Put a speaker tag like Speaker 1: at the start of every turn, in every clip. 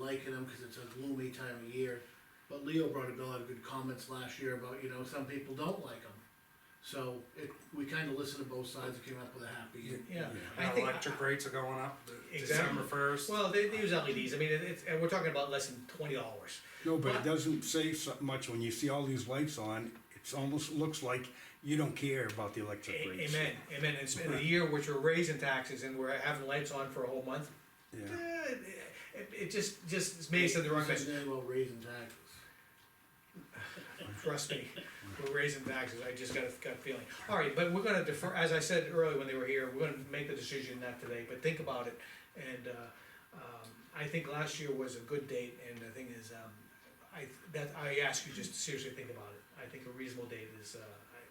Speaker 1: liking them because it's a gloomy time of year. But Leo brought up a lot of good comments last year about, you know, some people don't like them. So it, we kinda listened to both sides and came up with a happy.
Speaker 2: Yeah, I
Speaker 3: Now
Speaker 2: think,
Speaker 3: electric rates are going up, the- December
Speaker 2: Exactly.
Speaker 3: first.
Speaker 2: well, they, they use LEDs, I mean, it- it's, and we're talking about less than twenty dollars.
Speaker 4: No, but it doesn't say so much when you see all these lights on, it's almost looks like you don't care about the electric rates.
Speaker 2: Amen, amen, it's been a year which we're raising taxes and we're having lights on for a whole month.
Speaker 4: Yeah.
Speaker 2: Eh, It, it just, just it's made us in the wrong place,
Speaker 1: Something about raising taxes.
Speaker 2: trust me, we're raising taxes, I just got a gut feeling. Alright, but we're gonna defer, as I said earlier when they were here, we're gonna make the decision not today, but think about it. And, uh, um, I think last year was a good date, and the thing is, um, I, that, I ask you just to seriously think about it. I think a reasonable date is, uh,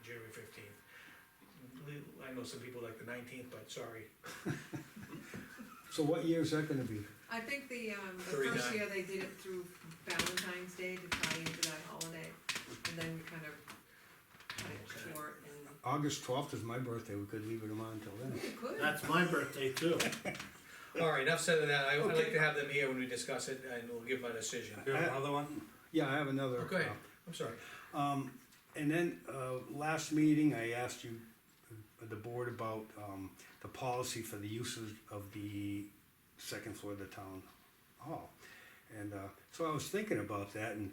Speaker 2: January fifteenth. I know some people like the nineteenth, but sorry,
Speaker 4: So what year is that gonna be?
Speaker 5: I think the, um, the
Speaker 2: Thirty
Speaker 5: first
Speaker 2: nine.
Speaker 5: year they did it through Valentine's Day to tie into that holiday, and then we kind of cut it short and
Speaker 4: August twelfth is my birthday, we could leave it on till then.
Speaker 5: we could.
Speaker 1: That's my birthday too.
Speaker 2: All right, enough said of that, I, I'd like to have them here when we discuss it, and we'll give my decision.
Speaker 3: You have another one?
Speaker 4: Yeah, I have another.
Speaker 2: Okay,
Speaker 4: uh,
Speaker 2: I'm sorry.
Speaker 4: Um, and then, uh, last meeting, I asked you, uh, the board about, um, the policy for the uses of the second floor of the town hall. And, uh, so I was thinking about that, and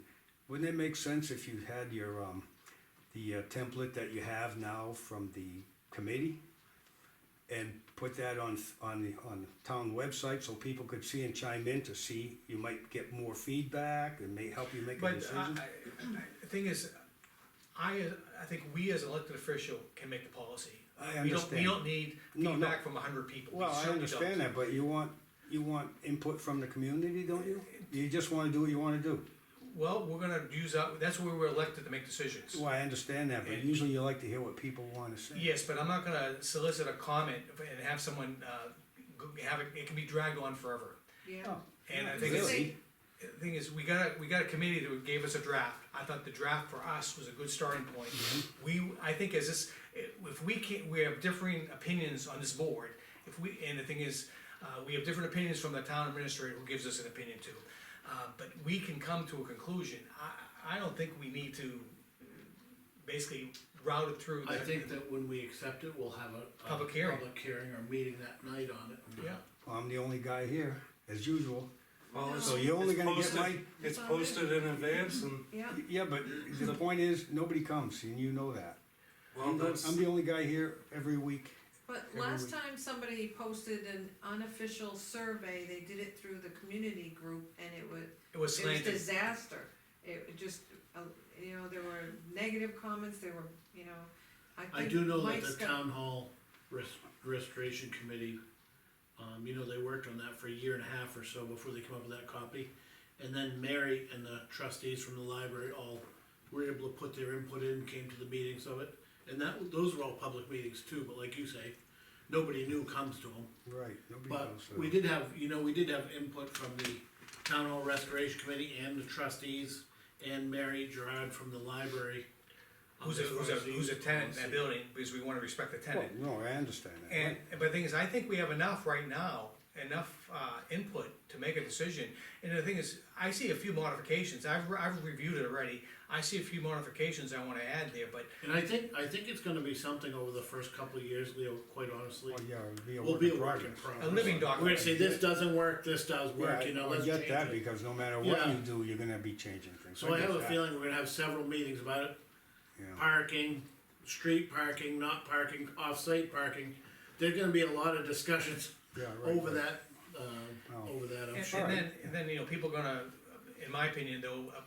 Speaker 4: wouldn't it make sense if you had your, um, the uh, template that you have now from the committee? And put that on, on the, on the town website, so people could see and chime in to see, you might get more feedback, and may help you make a
Speaker 2: But, uh,
Speaker 4: decision.
Speaker 2: I, I, the thing is, I, I think we as elected official can make the policy.
Speaker 4: I
Speaker 2: We don't, we
Speaker 4: understand.
Speaker 2: don't need
Speaker 4: No, no.
Speaker 2: feedback from a hundred people. We
Speaker 4: Well, I
Speaker 2: certainly
Speaker 4: understand
Speaker 2: don't.
Speaker 4: that, but you want, you want input from the community, don't you? You just wanna do what you wanna do.
Speaker 2: Well, we're gonna use that, that's where we're elected to make decisions.
Speaker 4: Well, I understand that, but
Speaker 2: And-
Speaker 4: usually you like to hear what people wanna say.
Speaker 2: Yes, but I'm not gonna solicit a comment and have someone, uh, go- have it, it can be dragged on forever.
Speaker 5: Yeah,
Speaker 4: Oh,
Speaker 2: And I think it's.
Speaker 4: Really?
Speaker 2: The thing is, we got a, we got a committee that gave us a draft, I thought the draft for us was a good starting point. We, I think as this, if we can't, we have differing opinions on this board, if we, and the thing is, uh, we have different opinions from the town administrator who gives us an opinion too. Uh, but we can come to a conclusion, I, I don't think we need to basically route it through.
Speaker 1: I
Speaker 2: the-
Speaker 1: think that when we accept it, we'll have a. a
Speaker 2: Public hearing.
Speaker 1: Public hearing or meeting that night on it.
Speaker 2: Yeah,
Speaker 4: I'm the only guy here, as usual.
Speaker 3: Well, it's-
Speaker 4: So you're only
Speaker 3: it's
Speaker 4: gonna get
Speaker 3: posted-
Speaker 4: my-
Speaker 3: It's posted in advance and,
Speaker 5: yeah,
Speaker 4: Yeah, but the point is, nobody comes, and you know that.
Speaker 3: well,
Speaker 4: I'm the
Speaker 3: that's,
Speaker 4: I'm the only guy here every week.
Speaker 5: but
Speaker 4: Every
Speaker 5: last
Speaker 4: week.
Speaker 5: time somebody posted an unofficial survey, they did it through the community group and it was,
Speaker 2: it was
Speaker 5: it was
Speaker 2: slanted,
Speaker 5: disaster. It just, uh, you know, there were negative comments, there were, you know, I think.
Speaker 1: I do know that
Speaker 5: Mike's
Speaker 1: the
Speaker 5: got-
Speaker 1: town hall rest, restoration committee, um, you know, they worked on that for a year and a half or so before they came up with that copy. And then Mary and the trustees from the library all were able to put their input in, came to the meetings of it. And that, those were all public meetings too, but like you say, nobody new comes to them.
Speaker 4: Right, nobody
Speaker 1: But
Speaker 4: comes. so-
Speaker 1: we did have, you know, we did have input from the Town Hall Restoration Committee and the trustees and Mary Gerard from the library. um,
Speaker 2: who's a,
Speaker 1: as far
Speaker 2: who's a,
Speaker 1: as the
Speaker 2: who's a
Speaker 1: use
Speaker 2: tenant in that
Speaker 1: policy.
Speaker 2: building, because we wanna respect the tenant.
Speaker 4: Well, no, I understand that.
Speaker 2: And, but
Speaker 4: right.
Speaker 2: the thing is, I think we have enough right now, enough, uh, input to make a decision. And the thing is, I see a few modifications, I've, re- I've reviewed it already, I see a few modifications I wanna add there, but
Speaker 1: And I think, I think it's gonna be something over the first couple of years, Leo, quite honestly.
Speaker 4: Well, yeah, it'd be a
Speaker 1: We'll
Speaker 4: work
Speaker 1: be
Speaker 4: in
Speaker 1: a work in
Speaker 4: progress.
Speaker 1: progress.
Speaker 2: a living
Speaker 1: We're gonna
Speaker 2: document.
Speaker 1: say, this doesn't work, this does
Speaker 4: Yeah,
Speaker 1: work, you know,
Speaker 4: I
Speaker 1: let's
Speaker 4: get
Speaker 1: change
Speaker 4: that,
Speaker 1: it.
Speaker 4: because no matter what
Speaker 1: Yeah.
Speaker 4: you do, you're gonna be changing things.
Speaker 1: So I
Speaker 4: get
Speaker 1: have a
Speaker 4: that,
Speaker 1: feeling we're gonna have several meetings about it,
Speaker 4: yeah.
Speaker 1: parking, street parking, not parking, off-site parking. There's gonna be a lot of discussions
Speaker 4: Yeah, right,
Speaker 1: over
Speaker 4: right.
Speaker 1: that, uh,
Speaker 4: Oh.
Speaker 1: over that, I'm
Speaker 2: And
Speaker 1: sure.
Speaker 2: and then, and then, you know, people gonna, in my opinion, there'll, uh,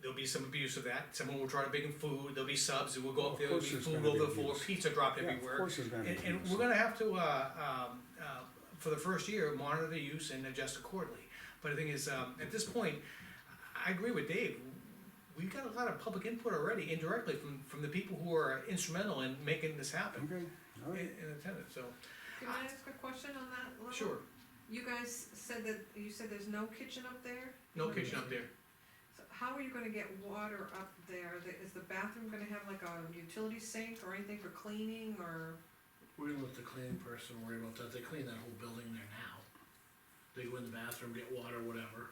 Speaker 2: there'll be some abuse of that, someone will try to bring in food, there'll be subs, and we'll go
Speaker 4: Of
Speaker 2: up there, there'll be
Speaker 4: course there's
Speaker 2: food
Speaker 4: gonna be
Speaker 2: over the floor,
Speaker 4: abuse.
Speaker 2: pizza dropped
Speaker 4: Yeah, of
Speaker 2: everywhere.
Speaker 4: course there's gonna be
Speaker 2: And, and
Speaker 4: abuse.
Speaker 2: we're gonna have to, uh, um, uh, for the first year, monitor the use and adjust accordingly. But the thing is, um, at this point, I agree with Dave, we've got a lot of public input already indirectly from, from the people who are instrumental in making this happen
Speaker 4: Okay, all
Speaker 2: in,
Speaker 4: right.
Speaker 2: in attendance, so,
Speaker 5: Can I ask a question on that level?
Speaker 2: sure,
Speaker 5: You guys said that, you said there's no kitchen up there?
Speaker 2: no kitchen up there.
Speaker 5: So how are you gonna get water up there? The- Is the bathroom gonna have like a utility sink or anything for cleaning or?
Speaker 1: We're gonna let the cleaning person worry about that, they clean that whole building there now. They go in the bathroom, get water, whatever.